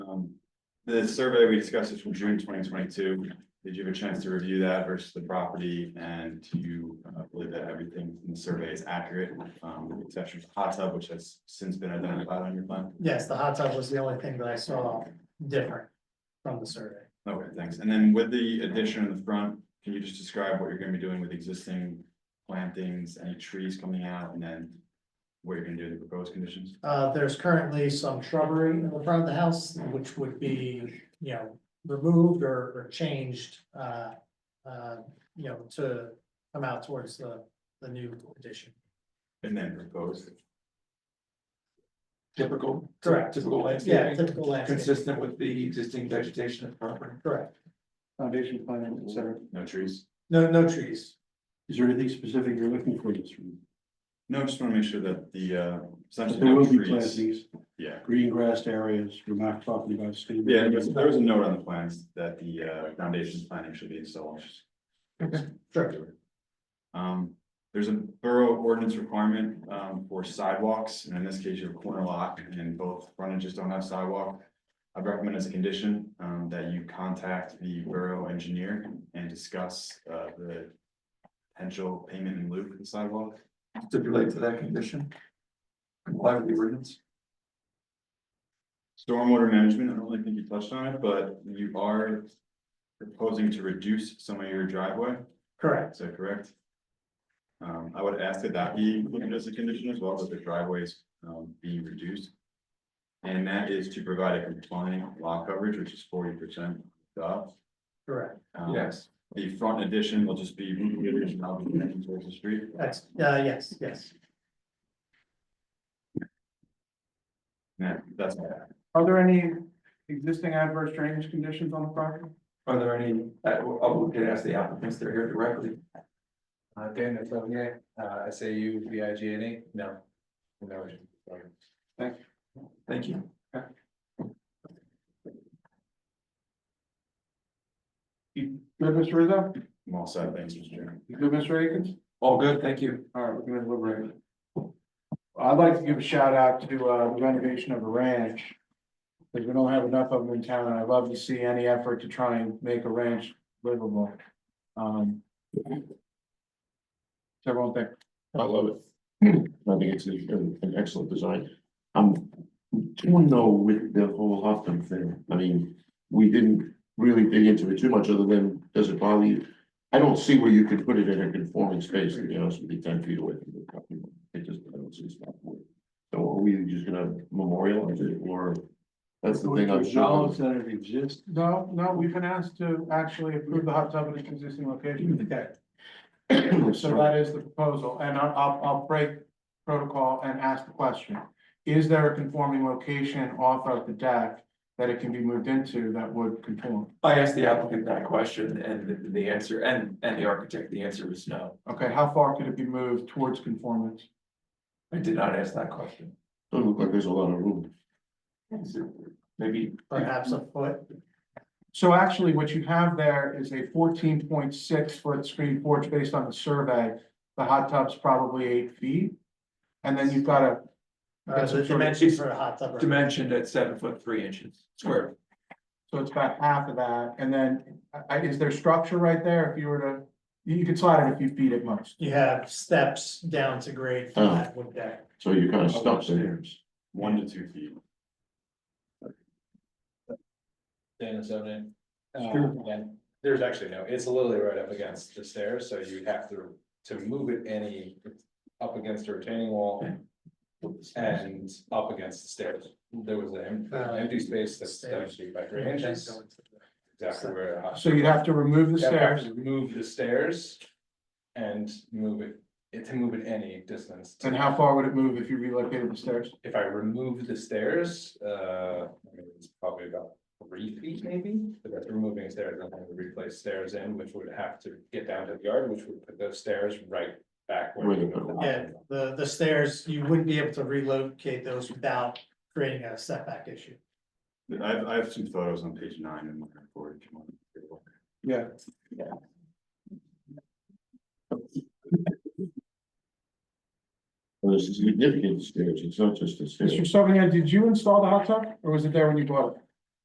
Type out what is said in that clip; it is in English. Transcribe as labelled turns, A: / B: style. A: Um, The survey we discussed is from June twenty twenty-two. Did you have a chance to review that versus the property and do you uh, believe that everything in the survey is accurate? Um, with the exception of the hot tub, which has since been identified on your plan.
B: Yes, the hot tub was the only thing that I saw different from the survey.
A: Okay, thanks. And then with the addition in the front, can you just describe what you're gonna be doing with existing plantings, any trees coming out, and then what you're gonna do with the proposed conditions?
B: Uh, there's currently some shrubbery in the front of the house, which would be, you know, removed or, or changed, uh, uh, you know, to come out towards the, the new addition.
A: And then proposed.
C: Typical.
B: Correct.
C: Typical
B: Yeah,
C: landscaping,
B: typical landscape,
C: consistent with the existing vegetation of the property.
B: correct.
D: foundation plan, et cetera.
A: No trees?
B: No, no trees.
D: Is there anything specific you're looking for in this room?
A: No, I just wanna make sure that the, uh, essentially
D: There
A: no
D: will be
A: trees.
D: plantings,
A: Yeah.
D: green grassed areas, you're not talking about. stadium.
A: Yeah, there was, there was a note on the plans that the uh foundation planning should be installed.
B: Sure.
A: Um, there's a borough ordinance requirement um for sidewalks, and in this case, you have a corner lot and both frontages don't have sidewalk. I recommend as a condition um that you contact the borough engineer and discuss uh the potential payment in lieu for the sidewalk.
C: Stipulate to that condition. Comply with the ordinance.
A: Stormwater management, I don't really think you touched on it, but you are proposing to reduce some of your driveway.
B: Correct.
A: Is that correct? Um, I would ask that that be included as a condition as well, that the driveways, um, be reduced. And that is to provide a compliant lot coverage, which is forty percent up.
B: Correct.
A: Um, The front addition will just be, now be connected towards the street.
B: That's, uh, yes, yes.
A: Yeah, that's all. I have.
D: Are there any existing adverse drainage conditions on the property?
C: Are there any, uh, I, I'll get asked the applicants, they're here directly.
E: Uh, Dan, that's on, yeah, uh, S A U V I G N E, no. No. sorry.
C: Thank you.
D: Good, Mr. Rizzo?
A: I'm all set, thanks, Mr. Chairman.
D: You Good, Mr. Akins?
C: All good, thank you.
D: All right, we're gonna deliberate. I'd like to give a shout out to uh, the renovation of a ranch. Because we don't have enough of them in town, and I'd love to see any effort to try and make a ranch livable. Um. so Everyone think,
F: I love it. I think it's a- an an excellent design. Um, I'm torn though with the whole Hoffman thing. I mean, we didn't really dig into it too much other than, does it bother you? I don't see where you could put it in a conforming space, to be honest with you, ten feet away from the property. line. It just, I don't see it's not worth it. So are we just gonna memorialize it or? That's the thing I'm sure.
D: that it exists.
G: No, no, we've been asked to actually approve the hot tub in its existing location.
D: Okay.
G: So that is the proposal, and I'll, I'll, I'll break protocol and ask the question. Is there a conforming location off of the deck that it can be moved into that would conform?
C: I asked the applicant that question and the- the answer, and, and the architect, the answer was no.
G: Okay, how far could it be moved towards conformance?
C: I did not ask that question.
F: Doesn't look like there's a lot of room.
C: Maybe.
B: Perhaps a foot.
G: So actually, what you have there is a fourteen point six foot screen porch based on the survey. The hot tub's probably eight feet. And then you've got a
B: Uh, the dimensions for a hot tub. are-
C: Dimensioned at seven foot three inches square.
G: So it's about half of that, and then, I, is there structure right there if you were to, you, you could slide it a few feet at most.
B: You have steps down to grade for
F: Oh.
B: that wood deck.
F: So you're kind of stuck there.
A: One to two feet.
E: Dan, is that it? Uh, and There's actually no, it's literally right up against the stairs, so you have to, to move it any, up against the retaining wall and up against the stairs. There was an
B: Uh,
E: empty space that's seven
B: stairs.
E: feet by three inches, exactly where. I-
G: So you'd have to remove the
E: Yeah, perhaps
G: stairs,
E: Move the stairs and move it, it to move it any distance. to-
G: and how far would it move if you relocated the stairs?
E: If I remove the stairs, uh, I mean, it's probably about three feet maybe, but that's removing stairs, I'm gonna replace stairs in, which would have to get down to the yard, which would put those stairs right back. where
F: Where they
E: you
F: go.
B: Yeah, the, the stairs, you wouldn't be able to relocate those without creating a setback issue.
A: I have, I have some photos on page nine in my report. if you want to take a look.
G: Yeah.
F: There's significant stairs. It's not just the stairs.
G: Mr. Savignon, did you install the hot tub, or was it there when you bought it?